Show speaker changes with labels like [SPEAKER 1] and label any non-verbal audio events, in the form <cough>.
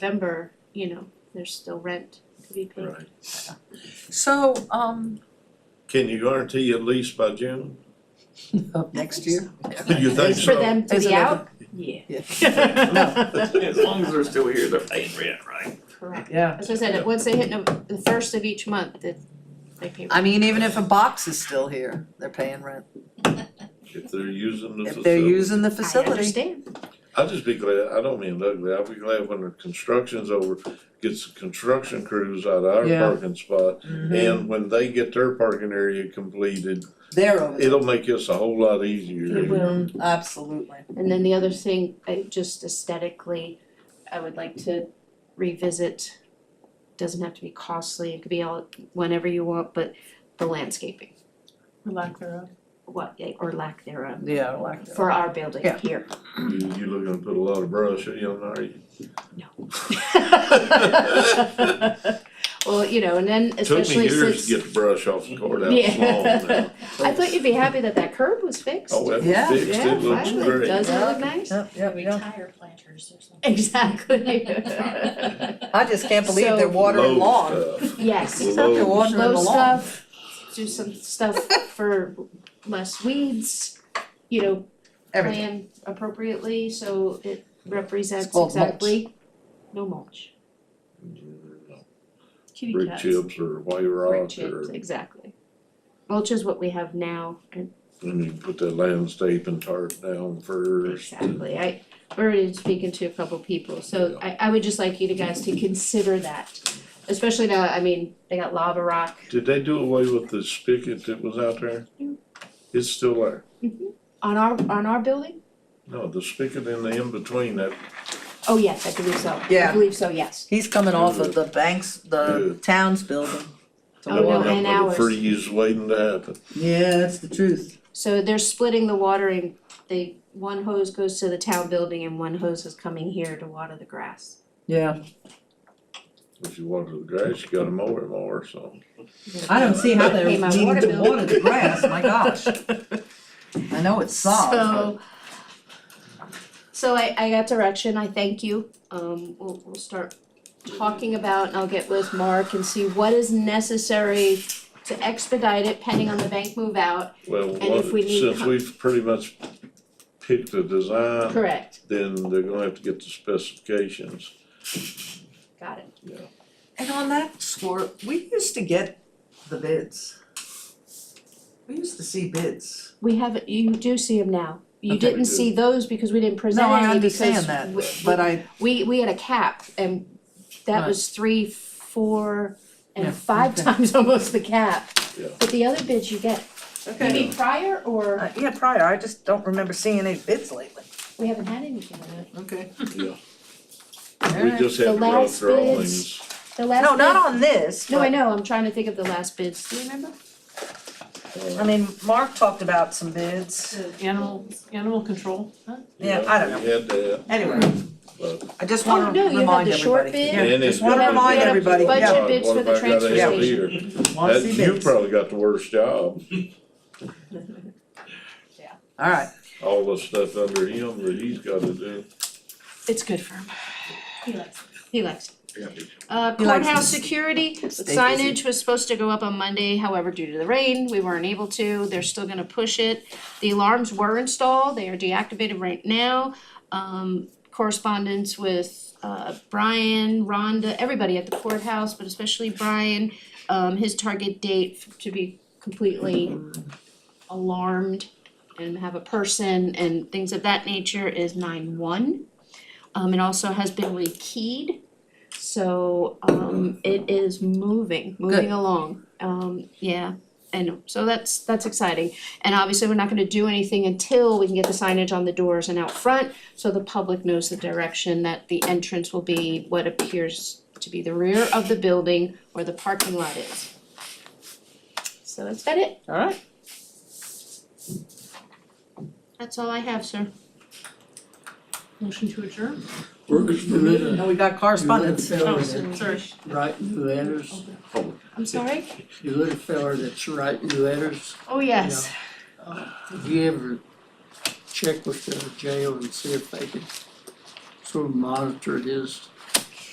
[SPEAKER 1] November, you know, there's still rent to be paid.
[SPEAKER 2] Right.
[SPEAKER 3] So, um,
[SPEAKER 2] Can you guarantee a lease by
[SPEAKER 1] <laughs>
[SPEAKER 2] June?
[SPEAKER 3] <laughs> up next year?
[SPEAKER 2] Do you think
[SPEAKER 1] It's for
[SPEAKER 2] so? <laughs>
[SPEAKER 1] them to
[SPEAKER 3] Is
[SPEAKER 1] be
[SPEAKER 3] it ever-
[SPEAKER 1] out, yeah.
[SPEAKER 3] <laughs>
[SPEAKER 4] As long as they're still here, they're paying rent, right?
[SPEAKER 1] Correct.
[SPEAKER 3] Yeah.
[SPEAKER 1] As I said, it- once they hit no, the first of each month, that they pay.
[SPEAKER 3] I mean, even if a box is still here, they're paying rent.
[SPEAKER 2] If they're using the
[SPEAKER 3] If they're
[SPEAKER 2] facility.
[SPEAKER 3] using the
[SPEAKER 1] I
[SPEAKER 3] facility,
[SPEAKER 1] understand,
[SPEAKER 2] I'll just be glad, I don't mean ugly, I'll be glad when the construction's over, gets the construction crews out of our
[SPEAKER 3] Yeah.
[SPEAKER 2] parking spot.
[SPEAKER 3] Mm-hmm.
[SPEAKER 1] Mm-hmm.
[SPEAKER 2] And when they get their parking area completed,
[SPEAKER 3] they're over there.
[SPEAKER 2] it'll make us a whole lot easier.
[SPEAKER 1] It will.
[SPEAKER 3] Mhm, Absolutely.
[SPEAKER 1] and then the other thing, I just aesthetically, I would like to revisit. Doesn't have to be costly, it could be all, whenever you want, but the landscaping,
[SPEAKER 5] Lack thereof.
[SPEAKER 1] what, or lack thereof,
[SPEAKER 3] Yeah, I like that.
[SPEAKER 1] for our building
[SPEAKER 3] Yeah.
[SPEAKER 1] here.
[SPEAKER 2] You, you looking to put a lot of brush in, are you?
[SPEAKER 1] <laughs> Well, you know, and then
[SPEAKER 2] Took me
[SPEAKER 1] especially since.
[SPEAKER 2] years to get the brush off the courthouse
[SPEAKER 1] Yeah.
[SPEAKER 2] lawn
[SPEAKER 1] <laughs>
[SPEAKER 2] now.
[SPEAKER 1] I thought you'd be happy that that curb was fixed.
[SPEAKER 2] Oh, that
[SPEAKER 3] Yeah.
[SPEAKER 2] was fixed,
[SPEAKER 1] Yeah,
[SPEAKER 2] it looks
[SPEAKER 1] finally,
[SPEAKER 2] great.
[SPEAKER 1] doesn't it look
[SPEAKER 3] Yeah. <laughs>
[SPEAKER 1] nice?
[SPEAKER 3] Yep, yep, yep.
[SPEAKER 5] Retire planters or something.
[SPEAKER 1] Exactly.
[SPEAKER 3] I just can't believe they're
[SPEAKER 1] So-
[SPEAKER 3] watering lawn.
[SPEAKER 2] Low
[SPEAKER 1] <laughs>
[SPEAKER 2] stuff.
[SPEAKER 1] Yes,
[SPEAKER 3] It's not they're
[SPEAKER 2] Low.
[SPEAKER 3] watering the
[SPEAKER 1] slow
[SPEAKER 3] lawn.
[SPEAKER 1] stuff, do some stuff for less weeds, you know,
[SPEAKER 3] Everything.
[SPEAKER 1] plan appropriately, so it represents
[SPEAKER 3] It's called mulch.
[SPEAKER 1] exactly, no mulch,
[SPEAKER 5] Kitty
[SPEAKER 2] Brick
[SPEAKER 5] cats.
[SPEAKER 2] chips or white
[SPEAKER 1] brick
[SPEAKER 2] rock
[SPEAKER 1] chips,
[SPEAKER 2] or,
[SPEAKER 1] exactly. Mulch is what we have now, and
[SPEAKER 2] and you put that landscape and tarp down first.
[SPEAKER 1] Exactly, I already speaking to a couple people, so I I would just like you to guys to consider that. Especially now, I mean, they got lava rock,
[SPEAKER 2] Did they do away with the spigot that was out there?
[SPEAKER 1] No.
[SPEAKER 2] It's still there.
[SPEAKER 1] on our on our building?
[SPEAKER 2] No, the spigot in the in-between, that,
[SPEAKER 1] Oh, yes, I believe so, I
[SPEAKER 3] Yeah.
[SPEAKER 1] believe so, yes.
[SPEAKER 3] He's coming off of the banks, the
[SPEAKER 2] Good.
[SPEAKER 3] town's building. to
[SPEAKER 1] Oh, no,
[SPEAKER 3] water.
[SPEAKER 1] and
[SPEAKER 2] that
[SPEAKER 1] ours.
[SPEAKER 2] was freeze waiting to happen.
[SPEAKER 3] Yeah, that's the truth.
[SPEAKER 1] So they're splitting the watering, they, one hose goes to the town building and one hose is coming here to water the grass.
[SPEAKER 3] Yeah,
[SPEAKER 2] If you water the grass, you gotta mow it more, so.
[SPEAKER 3] I don't see how they're
[SPEAKER 1] Pay my water
[SPEAKER 3] needing to
[SPEAKER 1] bill.
[SPEAKER 3] water the grass, my gosh. I know it's soft, but-
[SPEAKER 1] So. So I I got direction, I thank you, um we'll we'll start talking about and I'll get with Mark and see what is necessary to expedite it pending on the bank move out.
[SPEAKER 2] Well,
[SPEAKER 1] And if
[SPEAKER 2] one-
[SPEAKER 1] we need
[SPEAKER 2] since
[SPEAKER 1] co-
[SPEAKER 2] we've pretty much picked a design,
[SPEAKER 1] Correct.
[SPEAKER 2] then they're gonna have to get the specifications.
[SPEAKER 1] Got it.
[SPEAKER 3] And on that score, we used to get the bids. We used to see bids.
[SPEAKER 1] We have, you do see them now. You
[SPEAKER 3] Okay.
[SPEAKER 1] didn't see those because we didn't present
[SPEAKER 3] No, I
[SPEAKER 1] any because
[SPEAKER 3] understand that,
[SPEAKER 1] we-
[SPEAKER 3] but I,
[SPEAKER 1] We we had a cap and that
[SPEAKER 3] Right.
[SPEAKER 1] was three, four
[SPEAKER 3] Yeah,
[SPEAKER 1] and five <laughs>
[SPEAKER 3] okay.
[SPEAKER 1] times almost the cap.
[SPEAKER 2] Yeah.
[SPEAKER 1] But the other bids you get, you
[SPEAKER 3] okay,
[SPEAKER 1] mean prior or
[SPEAKER 3] Uh, yeah, prior, I just don't remember seeing any bids lately.
[SPEAKER 1] we haven't had anything on it?
[SPEAKER 3] Okay.
[SPEAKER 2] Yeah. We
[SPEAKER 3] Alright.
[SPEAKER 2] just have
[SPEAKER 1] The
[SPEAKER 2] rough
[SPEAKER 1] last bids.
[SPEAKER 2] drawings.
[SPEAKER 1] The last
[SPEAKER 3] No, not
[SPEAKER 1] bid-
[SPEAKER 3] on this,
[SPEAKER 1] No, I
[SPEAKER 3] but-
[SPEAKER 1] know, I'm trying to think of the last bids, do you remember?
[SPEAKER 2] uh,
[SPEAKER 3] I mean, Mark talked about some bids,
[SPEAKER 5] <laughs> Animal, animal control.
[SPEAKER 3] yeah, I don't know,
[SPEAKER 2] We had that,
[SPEAKER 3] anyway,
[SPEAKER 2] but.
[SPEAKER 3] I just
[SPEAKER 1] Oh,
[SPEAKER 3] wanna remind
[SPEAKER 1] no, you
[SPEAKER 3] everybody.
[SPEAKER 1] had the short bid.
[SPEAKER 3] Yeah,
[SPEAKER 2] And
[SPEAKER 3] just
[SPEAKER 2] it's
[SPEAKER 3] wanna
[SPEAKER 2] gotta
[SPEAKER 3] remind
[SPEAKER 2] be-
[SPEAKER 3] everybody,
[SPEAKER 1] Budget
[SPEAKER 3] yeah,
[SPEAKER 2] God,
[SPEAKER 1] bids
[SPEAKER 2] what
[SPEAKER 1] for the
[SPEAKER 2] have I got
[SPEAKER 1] transfer
[SPEAKER 2] out
[SPEAKER 1] station.
[SPEAKER 2] here?
[SPEAKER 3] wanna
[SPEAKER 2] That-
[SPEAKER 3] see
[SPEAKER 2] You
[SPEAKER 3] bids.
[SPEAKER 2] probably got the worst job,
[SPEAKER 3] Alright,
[SPEAKER 2] all the stuff under him that he's gotta do.
[SPEAKER 1] It's good for him,
[SPEAKER 5] He likes
[SPEAKER 1] he likes it.
[SPEAKER 4] Yeah.
[SPEAKER 1] Uh,
[SPEAKER 3] He likes
[SPEAKER 1] courthouse
[SPEAKER 3] to s-
[SPEAKER 1] security,
[SPEAKER 3] busy.
[SPEAKER 1] signage was supposed to go up on Monday, however, due to the rain, we weren't able to, they're still gonna push it. The alarms were installed, they are deactivated right now, um, correspondence with, uh, Brian, Rhonda, everybody at the courthouse, but especially Brian. Um, his target date to be completely alarmed and have a person and things of that nature is nine one. Um, it also has been rekeyed, so, um, it is moving, moving
[SPEAKER 3] Good.
[SPEAKER 1] along, um, yeah. And so that's, that's exciting, and obviously, we're not gonna do anything until we can get the signage on the doors and out front, so the public knows the direction that the entrance will be what appears to be the rear of the building where the parking lot is. So that's about it,
[SPEAKER 3] alright,
[SPEAKER 1] that's all I have, sir.
[SPEAKER 5] motion to adjourn.
[SPEAKER 6] Workers permitted,
[SPEAKER 3] now we got correspondence.
[SPEAKER 6] Yeah.
[SPEAKER 5] Oh, sorry.
[SPEAKER 6] writing letters,
[SPEAKER 1] I'm sorry?
[SPEAKER 6] you little fella that's writing letters,
[SPEAKER 1] Oh, yes.
[SPEAKER 6] have you ever check with the jail and see if they could sort of monitor his